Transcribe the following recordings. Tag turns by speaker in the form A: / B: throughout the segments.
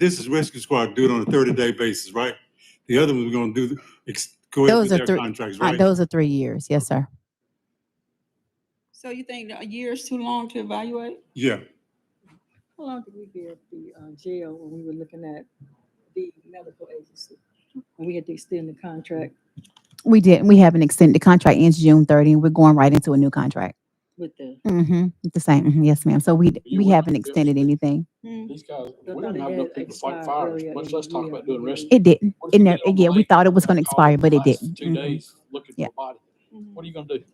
A: this is rescue squad, do it on a thirty day basis, right? The other ones we're gonna do, the- ex- go
B: Those
A: after their
B: are three-
A: contracts,
B: Uh,
A: right?
B: Those are three years. Yes, sir.
C: So you think that a year is too long to evaluate?
A: Yeah,
D: How long did we give the uh, jail when we were looking at the medical agency? When we had to extend the contract
B: We did. We have an extended contract ends June 30, and we're going right into a new contract.
D: with the,
B: Mm-hmm. The same. mhm, Yes, ma'am. So we, d-
E: You
B: we
E: will not
B: haven't
E: be able to
B: extended anything.
C: Mm-hmm.
E: These guys,
D: I thought
E: we don't
D: it
E: have
D: had
E: enough people to
D: expired
E: fight fires,
D: earlier
E: much
D: in
E: less
D: the
E: talk
D: year. Mm-hmm.
E: about doing rescue.
B: It didn't.
E: What if
B: It
E: you
B: never,
E: get on
B: yeah,
E: the
B: we
E: lake
B: thought it was
E: and
B: going to
E: call
B: expire, but it
E: the last
B: didn't.
E: Two
B: Mhm.
E: days looking for
B: Yeah.
E: a body. What are you gonna do?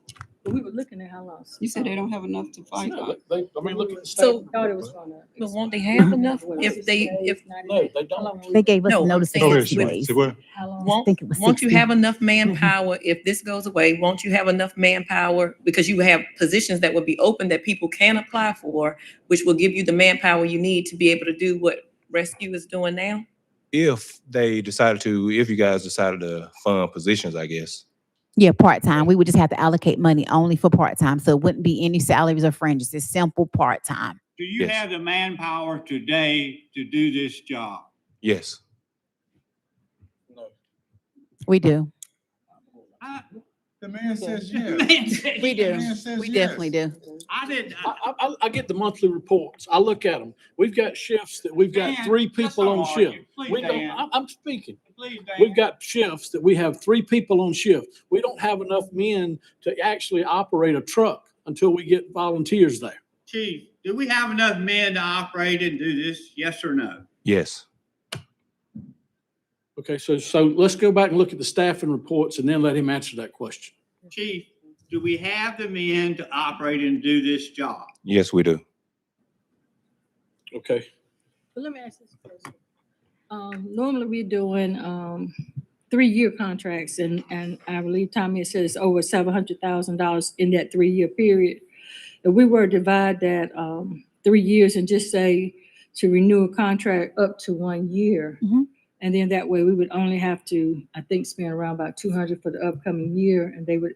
D: but we were looking at how long.
C: You said they don't have enough to fight.
E: No, They, I mean, look at the
F: So-
E: state.
D: Thought it was gonna.
F: But won't they have enough
D: What,
F: if
D: 60
F: they,
D: days,
F: if,
D: 90
E: No,
D: days?
E: they
D: How long
E: don't.
D: was
B: They
D: it?
B: gave us
F: No,
B: a
F: I'm
B: notice of
F: saying
B: 60
F: with-
B: days.
A: Say what?
D: How long?
F: won't,
B: think it was Mm-hmm.
F: won't you
B: 60.
F: have enough manpower if this goes away? Won't you have enough manpower? Because you have positions that would be open that people can apply for, which will give you the manpower you need to be able to do what rescue is doing now?
G: if they decided to, if you guys decided to fund positions, I guess.
B: Yeah, part-time. We would just have to allocate money only for part-time. So it wouldn't be any salaries or fringes. It's simple part-time.
H: Do you
G: Yes.
H: have the manpower today to do this job?
G: Yes.
E: No.
B: We do.
I: The man says yes.
B: We
H: We
I: The man
B: do.
I: says
B: We definitely
I: yes.
B: do.
H: I uh, didn't,
E: I, I, I- I get the monthly reports. I look at them. We've got shifts that we've got three people on shift. We don't, I'm, I'm speaking. We've got shifts that we have three people on shift. We don't have enough men to actually operate a truck until we get volunteers there.
H: Chief, do we have enough men to operate and do this? Yes or no?
G: Yes.
E: Okay, so, so let's go back and look at the staffing reports and then let him answer that question.
H: Chief, do we have the men to operate and do this job?
G: Yes, we do.
E: Okay.
D: But let me ask this question. Um, normally we're doing, um, three-year contracts and, and I believe Tommy had said it's over seven hundred thousand dollars in that three-year period. If we were to divide that, um, three years and just say to renew a contract up to one year.
B: Mhm.
D: And then that way we would only have to, I think, spend around about two hundred for the upcoming year and they would,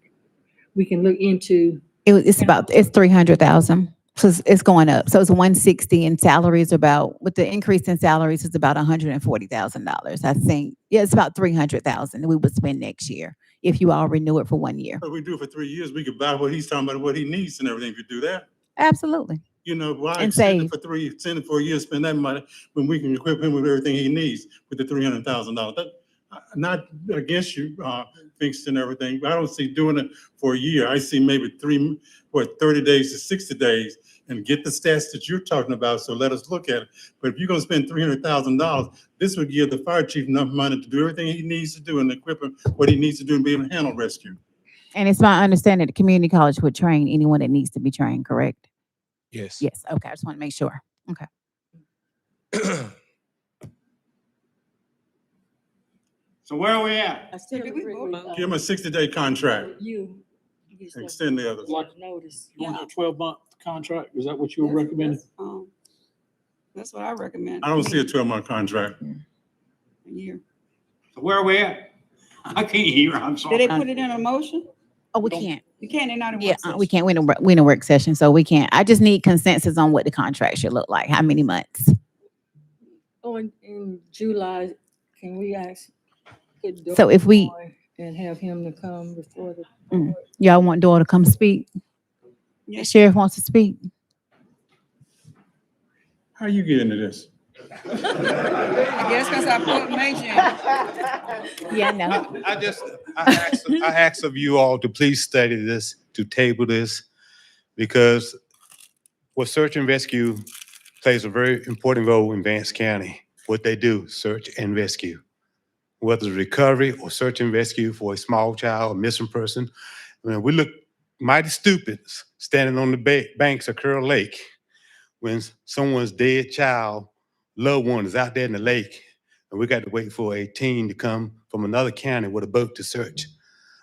D: we can look into,
B: It, was- it's about, it's three hundred thousand. So it's, it's going up. So it's one sixty and salaries about, with the increase in salaries, it's about hundred and forty thousand dollars, I think. Yeah, it's about three hundred thousand we would spend next year if you all renew it for one year.
A: If we do it for three years, we could buy what he's talking about, what he needs and everything, if you do that.
B: Absolutely.
A: You know, why
B: And
A: extend
B: save.
A: it for three, extend it for a year, spend that money, when we can equip him with everything he needs with the three hundred thousand dollars? That, I- not against you, uh, fixed and everything, but I don't see doing it for a year. I see maybe three, what, thirty days to sixty days and get the stats that you're talking about, so let us look at it. But if you're gonna spend three hundred thousand dollars, this would give the fire chief enough money to do everything he needs to do and equip him what he needs to do and be able to handle rescue.
B: And it's my understanding that the community college would train anyone that needs to be trained, correct?
G: Yes.
B: Yes, okay, I just want to make sure.
H: So where are we at?
D: I still
C: Did we
D: agree
C: vote
D: with,
C: on
D: uh,
A: Give him a sixty-day contract,
D: you. you
A: and
D: said
A: extend the others.
D: Notice.
E: You want to do a twelve month contract? Is that what you were
C: That's-
E: recommending?
C: that's, um, That's what I recommend.
A: I don't see a twelve-month contract.
C: A year.
H: So where are we at? I can't hear, I'm
C: Did they
H: sorry.
C: put it in a motion?
B: Oh, we
E: Don't-
B: can't.
C: You can't, they're not in
B: Yeah,
C: work
B: uh,
C: session.
B: we can't, we in a, wor- we in a work session, so we can't. I just need consensus on what the contract should look like, how many months.
D: Oh, in, in July, can we ask? could
B: So if we-
D: Dorn And have him to come before the.
B: Mm.
D: board?
B: Y'all want Doyle to come speak?
C: Yes.
B: Sheriff wants to speak.
A: How you get into this?
C: I guess because I put Major in.
B: Yeah, I know.
I: I just, I asked, I asked of you all to please study this, to table this, because what search and rescue plays a very important role in Vance County. What they do, search and rescue. Whether it's recovery or search and rescue for a small child, a missing person. I mean, we look mighty stupid standing on the ba- banks of Curl Lake when someone's dead child, loved one is out there in the lake and we got to wait for a team to come from another county with a boat to search.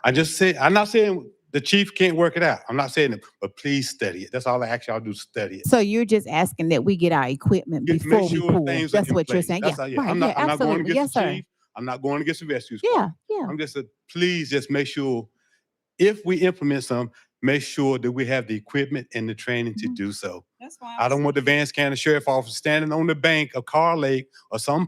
I: I just say, I'm not saying the chief can't work it out. I'm not saying it, but please study it. That's all I ask y'all to do, study it.
B: So you're just asking that we get our equipment
I: Get- make
B: before we
I: sure
B: pull.
I: things are
B: That's
I: in
B: what you're
I: place.
B: saying. Yeah,
I: That's all,
B: right,
I: I'm
B: yeah,
I: not, I'm not going
B: absolutely. Yes,
I: against the
B: sir.
I: chief. I'm not going against the rescue squad.
B: Yeah, yeah.
I: I'm just, a- please just make sure, if we implement some, make sure that we have the equipment and the training to
B: Mhm.
I: do so.
C: That's why.
I: I don't want the Vance County Sheriff Office standing on the bank of Car Lake or some